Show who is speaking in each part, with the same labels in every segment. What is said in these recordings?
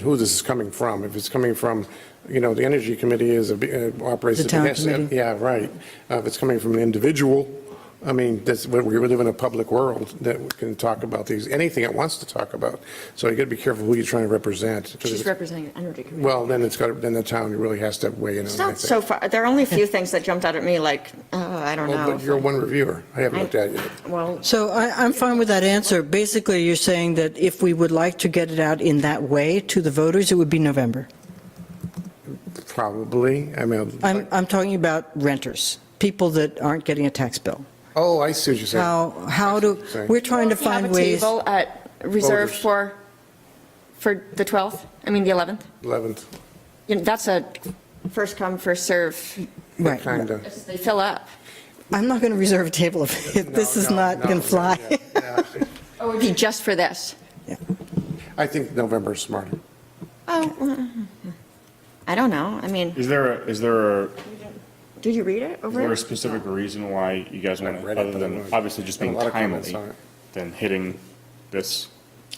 Speaker 1: who this is coming from. If it's coming from, you know, the Energy Committee is, a b- uh, operates.
Speaker 2: The town
Speaker 1: as a-
Speaker 2: committee.
Speaker 1: Yeah, right. Uh, If it's coming from an individual, I mean, that's, we we live in a public world that we can talk about these, anything it wants to talk about. So you got to be careful who you're trying to represent. 'cause
Speaker 3: She's
Speaker 1: it's-
Speaker 3: representing an energy committee.
Speaker 1: Well, then it's got, then the town really has to weigh in on
Speaker 3: It's
Speaker 1: it, I
Speaker 3: not
Speaker 1: think.
Speaker 3: so far, there are only a few things that jumped out at me, like, oh, I don't
Speaker 1: Well, But you're
Speaker 3: know.
Speaker 1: one reviewer. I haven't looked at it yet.
Speaker 3: Well,
Speaker 2: So I, I'm fine with that answer. Basically, you're saying that if we would like to get it out in that way to the voters, it would be November.
Speaker 1: Probably. I mean,
Speaker 2: I'm, I'm talking about renters, people that aren't getting a tax bill.
Speaker 1: oh, I see what you're saying.
Speaker 2: How, how do, we're trying to
Speaker 3: do you have
Speaker 2: find
Speaker 3: a
Speaker 2: ways.
Speaker 3: table at, reserved
Speaker 1: Voters.
Speaker 3: for, for the 12th, I mean, the 11th?
Speaker 1: 11th,
Speaker 3: You know, that's a first come, first serve.
Speaker 2: Right.
Speaker 1: kind of.
Speaker 3: They fill up.
Speaker 2: I'm not going to reserve a table if if this is not going to fly.
Speaker 3: Oh, It would be just for this.
Speaker 1: I think November's smarter.
Speaker 3: Oh, well, I don't know, I mean,
Speaker 4: Is there, a- is there, a- is
Speaker 3: did you read it
Speaker 4: there
Speaker 3: over?
Speaker 4: a specific reason why you guys want
Speaker 1: I've
Speaker 4: to,
Speaker 1: read it,
Speaker 4: other
Speaker 1: but I'm
Speaker 4: than
Speaker 1: not-
Speaker 4: obviously just
Speaker 1: Got a
Speaker 4: being
Speaker 1: lot of comments
Speaker 4: timely,
Speaker 1: on it.
Speaker 4: than hitting this?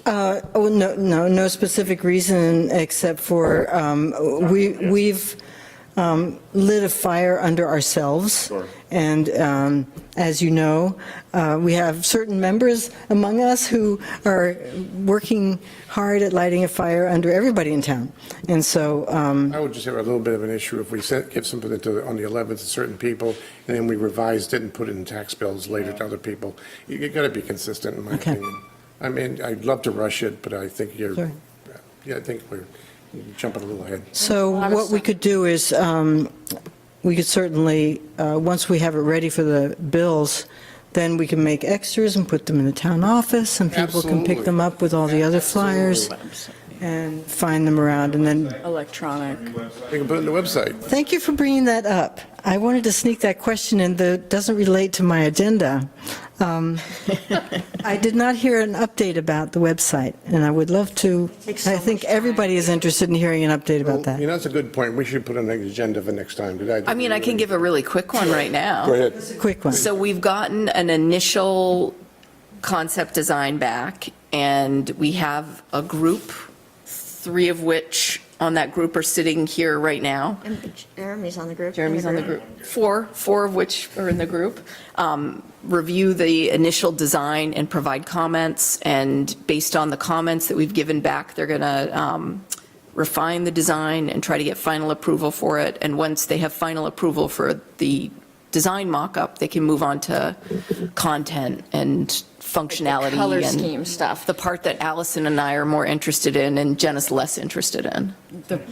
Speaker 2: Uh, Oh, no, no, no specific reason except for um, we, we've um, lit a fire under ourselves.
Speaker 4: Sure.
Speaker 2: And um, as you know, uh, we have certain members among us who are working hard at lighting a fire under everybody in town. And so, um,
Speaker 1: I would just have a little bit of an issue if we sent, give something to, the- on the 11th to certain people, and then we revised it and put it in tax bills later to other people. You you gotta be consistent, in my
Speaker 2: Okay.
Speaker 1: opinion. I mean, I'd love to rush it, but I think you're,
Speaker 2: Sorry.
Speaker 1: yeah, I think we're jumping a little ahead.
Speaker 2: So
Speaker 3: lot of
Speaker 2: what we
Speaker 3: stuff.
Speaker 2: could do is, um, we could certainly, uh, once we have it ready for the bills, then we can make extras and put them in the town office, and people can pick
Speaker 1: Absolutely.
Speaker 2: them up with all the other flyers and find them around, and then,
Speaker 3: Electronic.
Speaker 1: We can put it on the website.
Speaker 2: thank you for bringing that up. I wanted to sneak that question in that doesn't relate to my agenda. Um, I did not hear an update about the website, and I would love to,
Speaker 3: takes so
Speaker 2: I think
Speaker 3: much time.
Speaker 2: everybody is interested in hearing an update about that.
Speaker 1: You know, that's a good point. We should put it on the agenda for next time, because I.
Speaker 5: I mean, I can give a really quick one right
Speaker 1: Go
Speaker 5: now.
Speaker 1: ahead.
Speaker 2: Quick one.
Speaker 5: So we've gotten an initial concept design back, and we have a group, three of which on that group are sitting here right now.
Speaker 3: And Jeremy's on the group.
Speaker 5: Jeremy's on the group. Four, four of which are in the group. Um, Review the initial design and provide comments, and based on the comments that we've given back, they're going to refine the design and try to get final approval for it. And once they have final approval for the design mock-up, they can move on to content and functionality.
Speaker 3: Color
Speaker 5: and
Speaker 3: scheme stuff.
Speaker 5: The part that Allison and I are more interested in and Jenna's less interested in.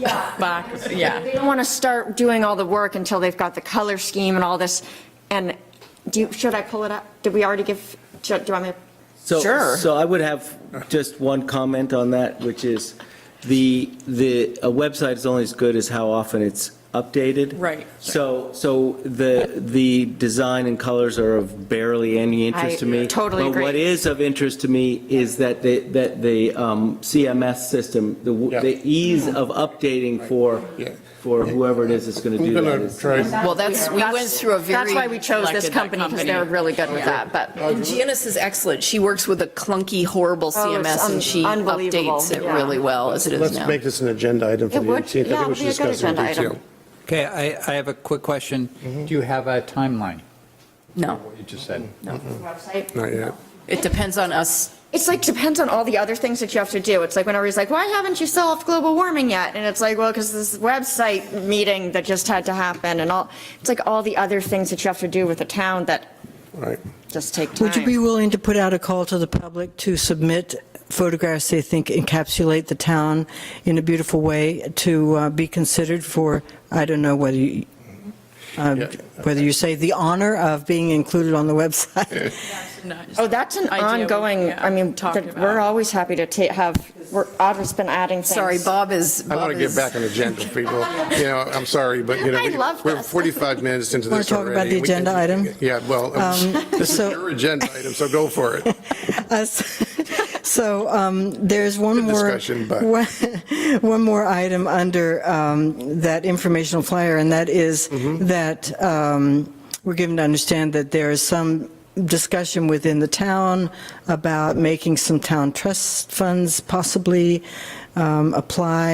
Speaker 3: box, yeah. They don't want to start doing all the work until they've got the color scheme and all this. And do, you- should I pull it up? Did we already give, do do you want me?
Speaker 6: So,
Speaker 5: Sure.
Speaker 6: So I would have just one comment on that, which is the, the, a website is only as good as how often it's updated.
Speaker 5: Right.
Speaker 6: So, so the, the design and colors are of barely any interest to me.
Speaker 3: I totally
Speaker 6: But what
Speaker 3: agree.
Speaker 6: is of interest to me is that the, that the um, CMS system, the, w-
Speaker 1: Yeah.
Speaker 6: the ease of updating for,
Speaker 1: Yeah.
Speaker 6: for whoever it is that's going to
Speaker 1: I'm
Speaker 6: do that
Speaker 1: gonna
Speaker 6: is.
Speaker 1: try.
Speaker 5: Well, that's, we went through a very.
Speaker 3: That's why we chose this
Speaker 5: Selected that
Speaker 3: company, because they were
Speaker 5: company. Mm-hmm.
Speaker 3: really good with that, but.
Speaker 5: And Janice is excellent. She works with a clunky, horrible
Speaker 3: Oh, it's
Speaker 5: CMS,
Speaker 3: un-
Speaker 5: and she
Speaker 3: unbelievable,
Speaker 5: updates it
Speaker 3: yeah.
Speaker 5: really well as it is
Speaker 1: Let's
Speaker 5: now.
Speaker 1: make this an agenda item for
Speaker 3: It
Speaker 1: the
Speaker 3: would-
Speaker 1: 18th. I
Speaker 3: yeah,
Speaker 1: think we
Speaker 3: it'd
Speaker 1: should
Speaker 3: be a good
Speaker 1: discuss it in
Speaker 3: agenda item.
Speaker 1: detail.
Speaker 7: Okay, I, I have a quick question. Do you have a timeline?
Speaker 5: No,
Speaker 7: You just said.
Speaker 1: Not yet.
Speaker 5: it depends on us.
Speaker 3: It's like, depends on all the other things that you have to do. It's like when everybody's like, why haven't you solved global warming yet? And it's like, well, because this website meeting that just had to happen and all, it's like all the other things that you have to do with the town that
Speaker 1: All right.
Speaker 3: just take time.
Speaker 2: Would you be willing to put out a call to the public to submit photographs they think encapsulate the town in a beautiful way to uh, be considered for, I don't know whether you, um,
Speaker 1: Yeah.
Speaker 2: whether you say the honor of being included on the website?
Speaker 3: Oh, that's an
Speaker 8: idea we-
Speaker 3: ongoing,
Speaker 8: yeah,
Speaker 3: I mean,
Speaker 8: talked
Speaker 3: that we're
Speaker 8: about.
Speaker 3: always happy to ta- have, we're, Audra's been adding things.
Speaker 5: Sorry, Bob is.
Speaker 1: I want to get back on the agenda, people. You know, I'm sorry, but you know.
Speaker 3: I
Speaker 1: we-
Speaker 3: love
Speaker 1: We're
Speaker 3: this.
Speaker 1: 45 minutes into
Speaker 2: Wanna
Speaker 1: this
Speaker 2: talk
Speaker 1: already.
Speaker 2: about
Speaker 1: We
Speaker 2: the
Speaker 1: can-
Speaker 2: agenda item? Um,
Speaker 1: Yeah, well, this is
Speaker 2: so-
Speaker 1: your agenda item, so go for it.
Speaker 2: Us- So um, there's one
Speaker 1: Good
Speaker 2: more.
Speaker 1: discussion, but-
Speaker 2: one- One more item under um, that informational flyer, and that is
Speaker 1: Mm-hmm.
Speaker 2: that um, we're given to understand that there is some discussion within the town about making some town trust funds possibly um, apply